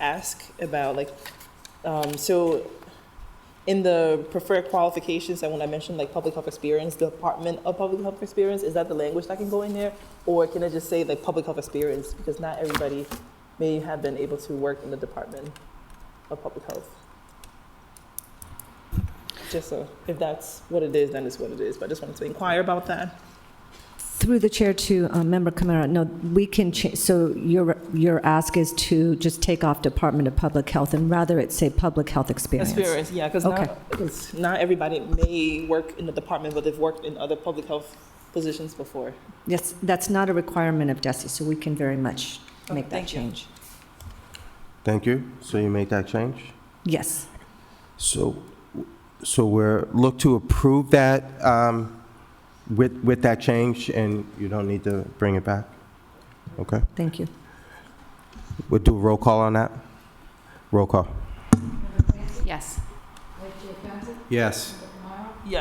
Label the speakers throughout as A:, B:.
A: ask about, like, um, so in the preferred qualifications, and when I mentioned like public health experience, Department of Public Health Experience, is that the language that can go in there? Or can I just say like public health experience, because not everybody may have been able to work in the Department of Public Health? Just so, if that's what it is, then it's what it is, but I just wanted to inquire about that.
B: Through the chair to uh, Member Kamara, no, we can, cha- so your, your ask is to just take off Department of Public Health and rather it say Public Health Experience.
A: Experience, yeah, because
B: Okay.
A: not, 'cause not everybody may work in the department, but they've worked in other public health positions before.
B: Yes, that's not a requirement of DESI, so we can very much make that
A: thank you.
B: change.
C: Thank you. So you make that change?
B: Yes,
C: So, so we're, look to approve that um, with, with that change, and you don't need to bring it back? Okay.
B: thank you.
C: We'll do a roll call on that? Roll call.
D: Yes.
C: Yes.
A: Yes.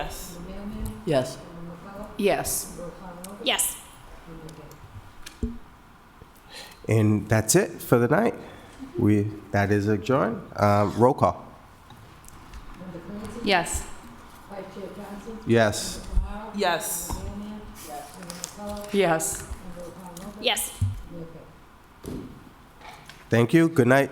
E: Yes.
D: Yes. Yes.
C: And that's it for the night. We, that is adjourned. Uh, Roll call.
D: Yes.
C: Yes.
A: Yes.
E: Yes.
D: Yes.
C: Thank you. Good night.